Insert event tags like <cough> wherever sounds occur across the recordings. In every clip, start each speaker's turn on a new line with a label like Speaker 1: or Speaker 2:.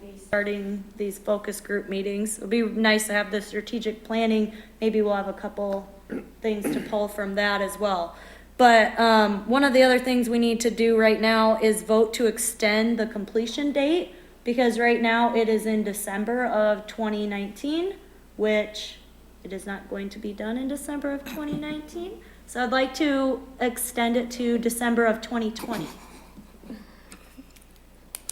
Speaker 1: be starting these focus group meetings. It'd be nice to have the strategic planning, maybe we'll have a couple things to pull from that as well. But, um, one of the other things we need to do right now is vote to extend the completion date, because right now it is in December of twenty nineteen, which it is not going to be done in December of twenty nineteen. So I'd like to extend it to December of twenty twenty.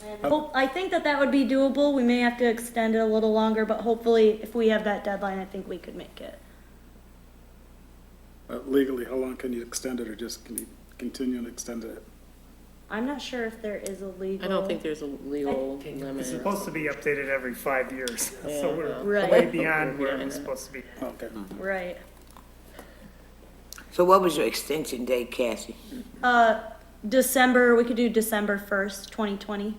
Speaker 1: And hope, I think that that would be doable. We may have to extend it a little longer, but hopefully if we have that deadline, I think we could make it.
Speaker 2: But Uh, Legally, how long can you extend it, or just can you continue and extend it?
Speaker 1: I'm not sure if there is a legal.
Speaker 3: I don't think there's a legal limit.
Speaker 4: It's supposed to be updated every five years, <laughs> so
Speaker 3: Yeah,
Speaker 4: we're
Speaker 1: Right.
Speaker 4: way beyond where
Speaker 3: Yeah.
Speaker 4: it's supposed to be.
Speaker 2: Okay.
Speaker 5: Mm-hmm.
Speaker 1: Right.
Speaker 6: So what was your extension date, Cassie?
Speaker 1: Uh, December, we could do December first, twenty twenty.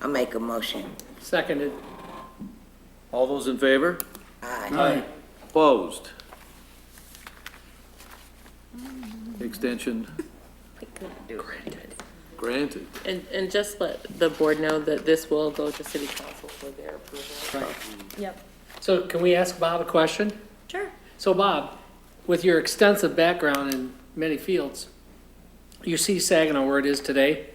Speaker 6: I make a motion.
Speaker 3: Seconded.
Speaker 7: All those in favor?
Speaker 6: Aye.
Speaker 7: Opposed? Extension granted.
Speaker 3: And, and just let the board know that this will go to city council for their approval.
Speaker 1: Yep,
Speaker 5: So can we ask Bob a question?
Speaker 1: sure.
Speaker 5: So Bob, with your extensive background in many fields, you see Saginaw where it is today,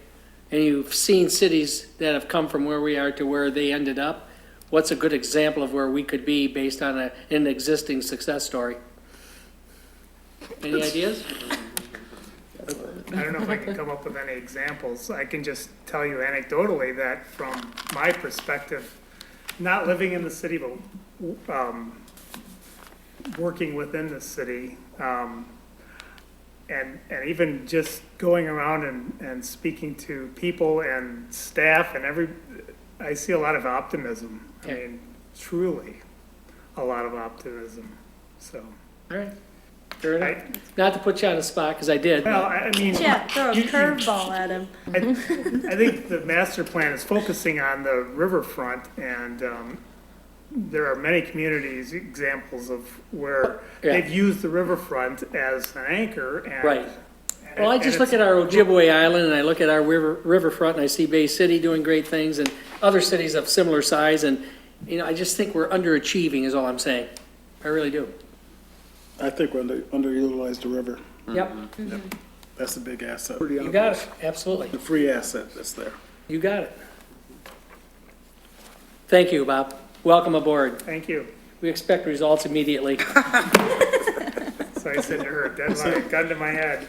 Speaker 5: and you've seen cities that have come from where we are to where they ended up. What's a good example of where we could be based on a, an existing success story? Any ideas?
Speaker 4: I don't know if I can come up with any examples. I can just tell you anecdotally that from my perspective, not living in the city, but, um, working within the city, um, and, and even just going around and, and speaking to people and staff and every, I see a lot of optimism. I
Speaker 5: Okay.
Speaker 4: mean, truly, a lot of optimism, so.
Speaker 5: All right, fair
Speaker 4: I,
Speaker 5: enough. Not to put you on the spot, because I did.
Speaker 4: well, I I mean.
Speaker 1: Yeah, throw a
Speaker 4: you- you-
Speaker 1: curveball at him.
Speaker 4: I I think the master plan is focusing on the riverfront, and um, there are many communities, examples of where
Speaker 5: Yeah.
Speaker 4: they've used the riverfront as an anchor, and.
Speaker 5: Right.
Speaker 4: and
Speaker 5: Well, I
Speaker 4: it-
Speaker 5: just
Speaker 4: and
Speaker 5: look
Speaker 4: it's-
Speaker 5: at our Ojibwe Island, and I look at our river riverfront, and I see Bay City doing great things, and other cities of similar size, and, you know, I just think we're underachieving, is all I'm saying. I really do.
Speaker 2: I think we under underutilized the river.
Speaker 5: Yep,
Speaker 2: That's a big asset.
Speaker 5: you got it, absolutely.
Speaker 2: The free asset that's there.
Speaker 5: You got it. Thank you, Bob. Welcome aboard.
Speaker 4: Thank you.
Speaker 5: We expect results immediately.
Speaker 4: So I said to her, deadline, gun to my head.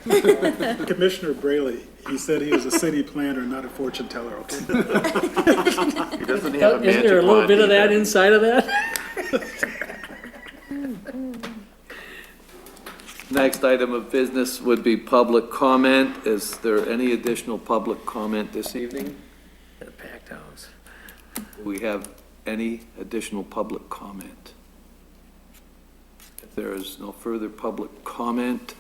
Speaker 2: Commissioner Braley, he said he was a city planner, not a fortune teller, okay?
Speaker 5: <laughs>
Speaker 7: He doesn't
Speaker 5: Isn't there a little bit of that inside of that?
Speaker 7: Next item of business would be public comment. Is there any additional public comment this evening?
Speaker 5: Packed house.
Speaker 7: Do we have any additional public comment? If there is no further public comment,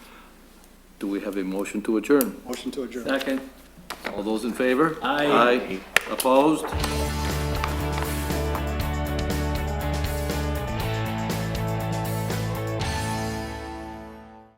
Speaker 7: do we have a motion to adjourn?
Speaker 2: Motion to adjourn.
Speaker 7: Second. All those in favor?
Speaker 5: Aye.
Speaker 7: Aye. Opposed?